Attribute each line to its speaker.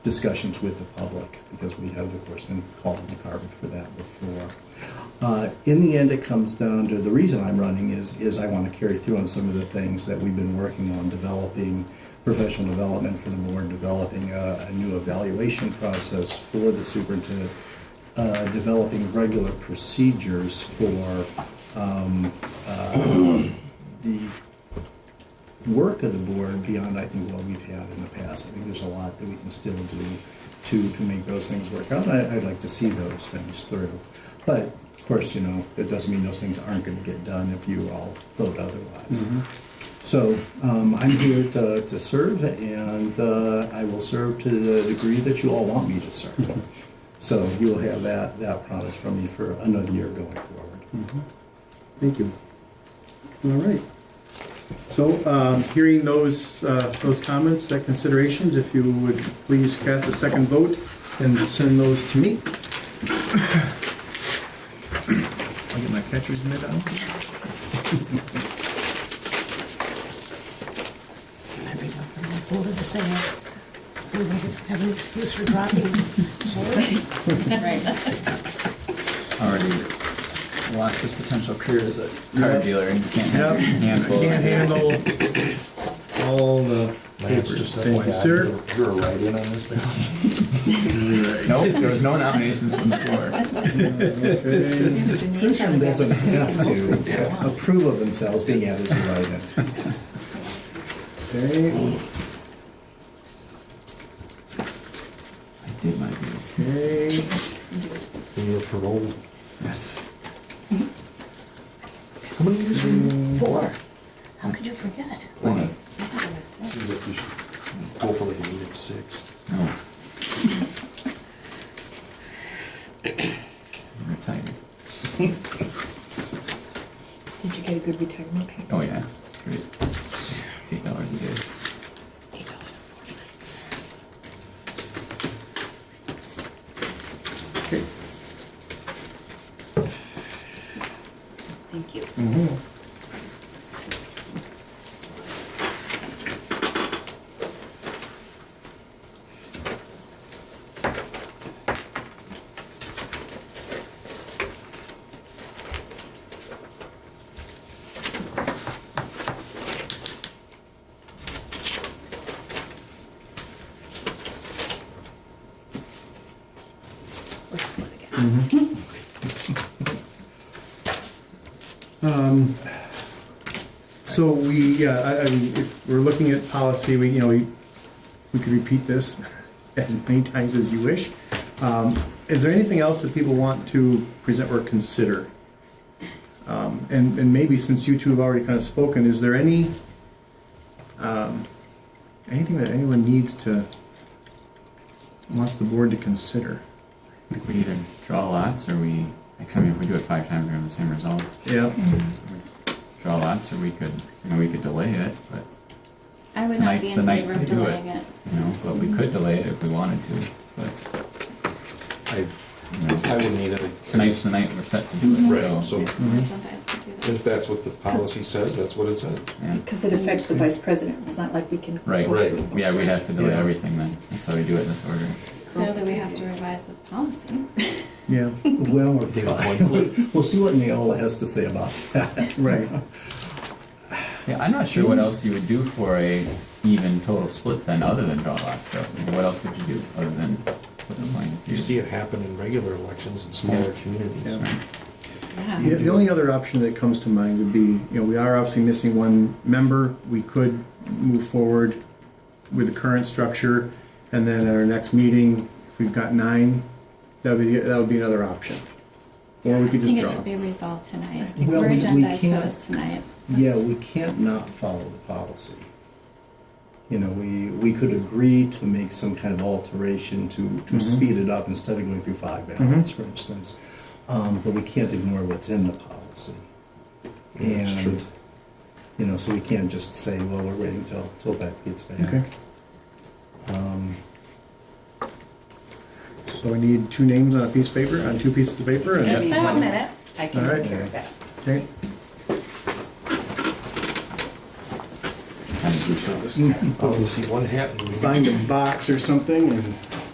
Speaker 1: discussions with the public, because we have, of course, been called the carpet for that before. Uh, In the end, it comes down to, the reason I'm running is, is I want to carry through on some of the things that we've been working on, developing professional development for the board, developing uh, a, a new evaluation process for the superintendent, uh, developing regular procedures for um, uh, the work of the board beyond, I think, what we've had in the past. I think there's a lot that we can still do to, to make those things work out. I, I'd like to see those things through. But of course, you know, that doesn't mean those things aren't gonna get done if you all vote otherwise. So, um, I'm here to, to serve and, uh, I will serve to the degree that you all want me to serve. So you will have that, that promise from me for another year going forward.
Speaker 2: Thank you. All right. So, um, hearing those, uh, those comments, that considerations, if you would please cast a second vote and send those to me. I'll get my catcher's mitt out.
Speaker 3: I bring up the folder to say that. So we don't have an excuse for dropping. it.
Speaker 4: Right.
Speaker 5: already lost his potential career as a car
Speaker 2: Yep.
Speaker 5: dealer and can't
Speaker 2: Yep.
Speaker 5: have a handful. of-
Speaker 2: Can't handle all the.
Speaker 6: Lance, just
Speaker 2: Thank you,
Speaker 6: FYI,
Speaker 2: sir.
Speaker 6: you're- You're a write-in on this, man?
Speaker 5: Nope, there was no nominations from the floor.
Speaker 2: Okay.
Speaker 1: Person doesn't have to approve of themselves being added to write-in.
Speaker 2: Okay,
Speaker 5: I did my due.
Speaker 2: okay.
Speaker 6: You're paroled.
Speaker 5: Yes.
Speaker 3: How many years were you? Four. How could you forget?
Speaker 5: One.
Speaker 6: Seems like you should go for like an eight at six.
Speaker 5: No. I'm retired.
Speaker 4: Did you get a good retirement pay?
Speaker 5: Oh yeah, great. Eight dollars a day.
Speaker 3: Eight dollars and forty-nine cents.
Speaker 2: Okay.
Speaker 4: Thank you. Let's do it again.
Speaker 2: Um, So we, yeah, I, I mean, if we're looking at policy, we, you know, we, we could repeat this as many times as you wish. Um, Is there anything else that people want to present or consider? Um, And, and maybe since you two have already kind of spoken, is there any, um, anything that anyone needs to, wants the board to consider?
Speaker 5: Like we either draw lots or we, like, I mean, if we do it five times, we have the same results.
Speaker 2: Yeah,
Speaker 7: Mm-hmm.
Speaker 5: We Draw lots or we could, you know, we could delay it, but,
Speaker 4: I would not
Speaker 5: Tonight's
Speaker 4: be
Speaker 5: the
Speaker 4: in
Speaker 5: night
Speaker 4: favor of
Speaker 5: to do it.
Speaker 4: delaying it.
Speaker 5: you know, but we could delay it if we wanted to, but,
Speaker 6: I,
Speaker 5: you know.
Speaker 6: I would need it.
Speaker 5: Tonight's the night we're set to do it.
Speaker 6: Right, so
Speaker 5: Mm-hmm.
Speaker 4: Sometimes we do that.
Speaker 6: if that's what the policy says, that's what it said.
Speaker 5: yeah.
Speaker 7: Because it affects the vice president, it's not like we can.
Speaker 5: Right.
Speaker 6: Right.
Speaker 5: Yeah, we have to delay
Speaker 2: Yeah.
Speaker 5: everything then. That's how we do it in this order.
Speaker 4: Now that we have to revise this policy.
Speaker 2: yeah,
Speaker 1: Well, we'll see what Neola has to say about that.
Speaker 2: right.
Speaker 5: Yeah, I'm not sure
Speaker 6: Mm-hmm.
Speaker 5: what else you would do for a even total split then, other than draw lots though. I mean, What else could you do other than split the line?
Speaker 6: You see it happen in regular elections in smaller communities.
Speaker 2: Yeah.
Speaker 4: Yeah.
Speaker 2: Yeah, the only other option that comes to mind would be, you know, we are obviously missing one member. We could move forward with the current structure, and then at our next meeting, if we've got nine, that would be, that would be another option. Or we
Speaker 4: I
Speaker 2: could
Speaker 4: think it
Speaker 2: just
Speaker 4: should
Speaker 2: draw.
Speaker 4: be resolved tonight.
Speaker 1: Well,
Speaker 4: We're
Speaker 1: we- we
Speaker 4: agendized for
Speaker 1: can't-
Speaker 4: this tonight.
Speaker 1: Yeah, we can't not follow the policy. You know, we, we could agree to make some kind of alteration to,
Speaker 6: Mm-hmm.
Speaker 1: to
Speaker 2: Mhm.
Speaker 1: speed it up instead of going through five ballots, for instance. Um, but we can't ignore what's in the policy.
Speaker 6: Yeah, that's true.
Speaker 1: And, You know, so we can't just say, well, we're waiting till, till that gets back.
Speaker 2: Okay,
Speaker 1: Um,
Speaker 2: so I need two names on a piece of paper, on two pieces of paper, and
Speaker 4: Yes,
Speaker 2: that-
Speaker 4: sir.
Speaker 7: One minute, I can
Speaker 2: All right.
Speaker 7: take care of that.
Speaker 2: okay?
Speaker 5: Kind of do so.
Speaker 6: Policy one hat and we Oh,
Speaker 2: Find a box or something and